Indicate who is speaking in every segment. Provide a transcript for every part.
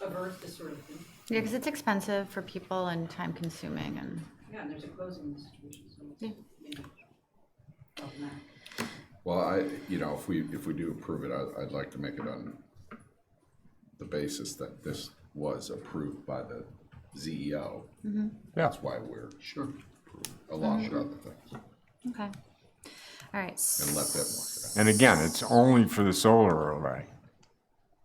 Speaker 1: avert this sort of thing.
Speaker 2: Yeah, because it's expensive for people and time consuming and.
Speaker 1: Yeah, and there's a closing situation, so
Speaker 2: Yeah.
Speaker 1: it's maybe problematic.
Speaker 3: Well, I, you know, if we, if we do approve it, I, I'd like to make it on the basis that this was approved by the ZEO.
Speaker 2: Mm-hmm.
Speaker 3: That's why we're. Sure. Along with other things,
Speaker 2: Okay. All right. s-
Speaker 3: and let them work it out.
Speaker 4: And again, it's only for the solar array.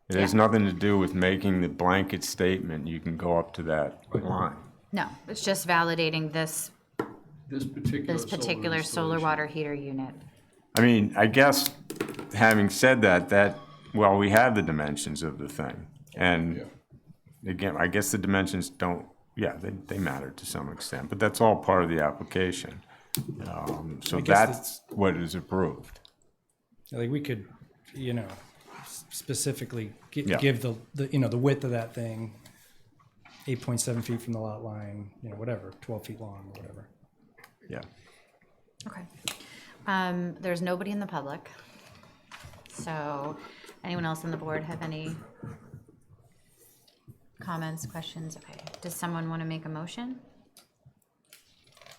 Speaker 4: It has
Speaker 2: Yeah.
Speaker 4: nothing to do with making the blanket statement, you can go up to that line.
Speaker 2: No, it's just validating this,
Speaker 5: This particular.
Speaker 2: this particular solar water heater unit.
Speaker 4: I mean, I guess, having said that, that, well, we have the dimensions of the thing. And
Speaker 3: Yeah,
Speaker 4: again, I guess the dimensions don't, yeah, they, they matter to some extent, but that's all part of the application. Um, So
Speaker 6: guess
Speaker 4: that's what is approved.
Speaker 6: Like we could, you know, s- specifically gi-
Speaker 4: Yeah.
Speaker 6: give the, the, you know, the width of that thing, eight point seven feet from the lot line, you know, whatever, twelve feet long, or whatever.
Speaker 4: Yeah.
Speaker 2: Okay. Um, there's nobody in the public. So anyone else on the board have any comments, questions? Okay. Does someone want to make a motion?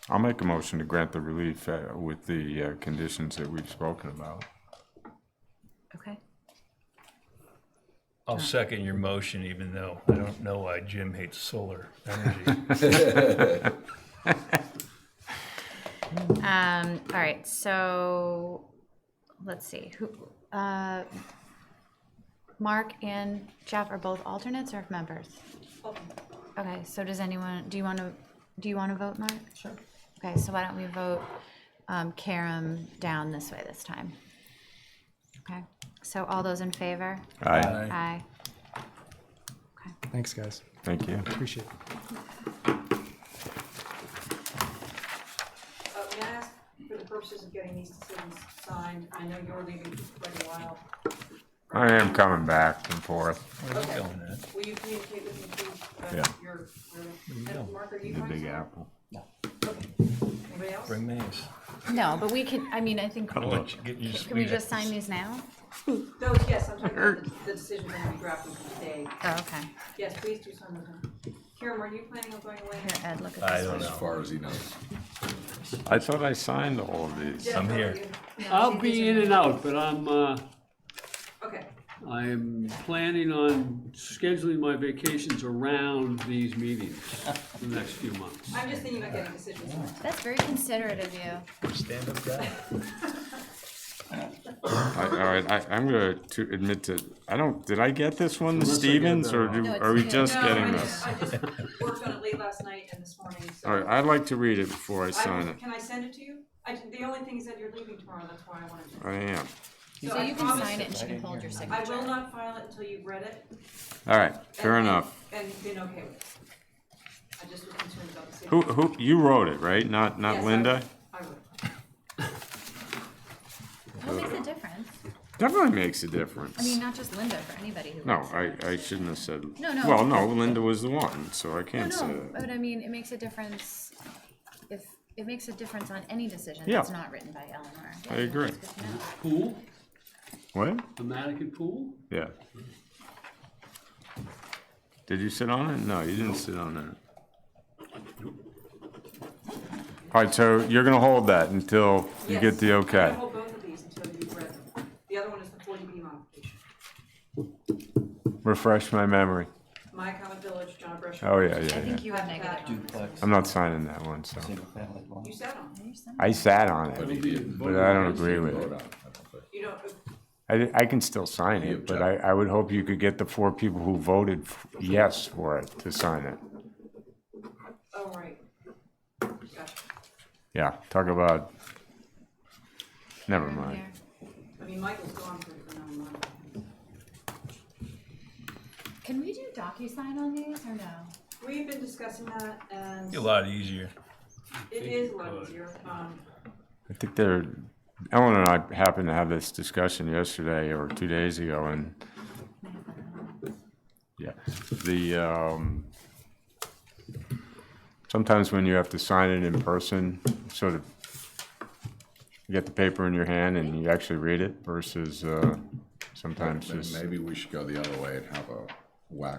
Speaker 4: I'll make a motion to grant the relief uh, with the uh, conditions that we've spoken about.
Speaker 2: Okay.
Speaker 7: I'll second your motion, even though I don't know why Jim hates solar energy.
Speaker 2: Um, all right, so let's see, who, uh, Mark and Jeff are both alternates or members? Okay, so does anyone, do you want to, do you want to vote, Mark? Sure. Okay, so why don't we vote, um, Karam down this way this time? Okay, so all those in favor?
Speaker 4: Aye.
Speaker 2: Aye.
Speaker 6: Thanks, guys.
Speaker 4: Thank you.
Speaker 6: Appreciate it.
Speaker 1: Uh, may I ask, for the purposes of getting these decisions signed, I know you're leaving for quite a while.
Speaker 4: I am coming back and forth.
Speaker 1: Okay,
Speaker 7: Going in.
Speaker 1: will you communicate with me, please?
Speaker 4: Yeah.
Speaker 1: about Your, your, and Mark, are you
Speaker 4: The
Speaker 1: going
Speaker 4: Big
Speaker 1: somewhere?
Speaker 4: Apple.
Speaker 1: Okay. Anybody else?
Speaker 7: Bring these.
Speaker 2: No, but we can, I mean, I think, can we just sign these now?
Speaker 1: Those, yes, I'm talking about the- the decision that we drafted today.
Speaker 2: Oh, okay,
Speaker 1: Yes, please do sign those. now. Karen, were you planning on going away?
Speaker 2: here, Ed, look at this.
Speaker 7: I don't
Speaker 2: one.
Speaker 3: as
Speaker 7: know.
Speaker 3: far as he knows.
Speaker 4: I thought I signed all of these.
Speaker 1: Jeff, how are
Speaker 7: here.
Speaker 1: you?
Speaker 8: I'll be in and out, but I'm, uh,
Speaker 1: Okay,
Speaker 8: I'm planning on scheduling my vacations around these meetings in the next few months.
Speaker 1: I'm just thinking about getting decisions.
Speaker 2: That's very considerate of you.
Speaker 7: Stand up guy.
Speaker 4: I, all right, I, I'm gonna to admit to, I don't, did I get this one, the
Speaker 8: Unless I get
Speaker 4: Stevens,
Speaker 8: that
Speaker 4: or
Speaker 8: wrong.
Speaker 4: do,
Speaker 2: No, it's
Speaker 4: are we
Speaker 2: me.
Speaker 4: just
Speaker 1: No, I
Speaker 4: getting this?
Speaker 1: just, I just worked on it late last night and this morning, so.
Speaker 4: All right, I'd like to read it before I
Speaker 1: I-
Speaker 4: sign it.
Speaker 1: Can I send it to you? I, the only thing is that you're leaving tomorrow, that's why I wanted to.
Speaker 4: I am.
Speaker 2: So
Speaker 1: I
Speaker 2: you can
Speaker 1: promise-
Speaker 2: sign it and she can hold your
Speaker 1: I
Speaker 2: signature.
Speaker 1: will not file it until you've read it. and-
Speaker 4: All right, fair
Speaker 1: and-
Speaker 4: enough.
Speaker 1: And been okay with it. I just was concerned about the safety.
Speaker 4: Who, who, you wrote it, right? Not,
Speaker 1: Yes,
Speaker 4: not
Speaker 1: I-
Speaker 4: Linda?
Speaker 1: I would.
Speaker 2: What makes a difference?
Speaker 4: Definitely makes a
Speaker 2: I mean,
Speaker 4: difference.
Speaker 2: not just Linda, for anybody who.
Speaker 4: No,
Speaker 2: works
Speaker 4: I,
Speaker 2: there.
Speaker 4: I shouldn't have said,
Speaker 2: No, no.
Speaker 4: well, no, Linda was the one, so I
Speaker 2: No,
Speaker 4: can't uh, say
Speaker 2: no,
Speaker 4: that.
Speaker 2: but I mean, it makes a difference if, it makes a difference on any decision
Speaker 4: Yeah.
Speaker 2: that's not written by Eleanor. Yeah,
Speaker 4: I agree.
Speaker 2: that's good to know.
Speaker 8: Pool,
Speaker 4: What?
Speaker 8: the Matican pool,
Speaker 4: Yeah. Did you sit on it? No, you didn't sit on it. All right, so you're gonna hold that until you get
Speaker 1: Yes.
Speaker 4: the
Speaker 1: I'm
Speaker 4: okay.
Speaker 1: gonna hold both of these until you've read them. The other one is the forty B modification.
Speaker 4: Refresh my memory.
Speaker 1: My Common Village, John Gresham.
Speaker 4: Oh, yeah, yeah,
Speaker 2: I
Speaker 4: yeah.
Speaker 2: think you have negative.
Speaker 9: duplex,
Speaker 4: I'm not signing that one, so.
Speaker 9: single-family dwelling.
Speaker 1: You sat on it.
Speaker 2: You're signing.
Speaker 4: I sat on
Speaker 3: But
Speaker 4: it,
Speaker 3: he didn't.
Speaker 4: but I don't
Speaker 3: He
Speaker 4: agree
Speaker 3: didn't
Speaker 4: with
Speaker 3: vote
Speaker 4: it.
Speaker 3: on I don't think.
Speaker 1: You don't, oh,
Speaker 4: I, di- I can still sign it, but I, I would hope you could get the four people who voted f- yes for it to sign it.
Speaker 1: oh, right. Gotcha.
Speaker 4: Yeah, talk about, never
Speaker 2: Here.
Speaker 4: mind.
Speaker 1: I mean, Michael's gone for for nine months.
Speaker 2: Can we do DocuSign on these or no?
Speaker 1: We've been discussing that and
Speaker 7: A lot easier.
Speaker 1: it is a lot easier. Um,
Speaker 4: I think there, Ellen and I happened to have this discussion yesterday or two days ago, and, yeah, the, um, sometimes when you have to sign it in person, sort of, you get the paper in your hand and you actually read it versus, uh, sometimes
Speaker 3: Then
Speaker 4: just,
Speaker 3: Maybe we should go the other way and have a whack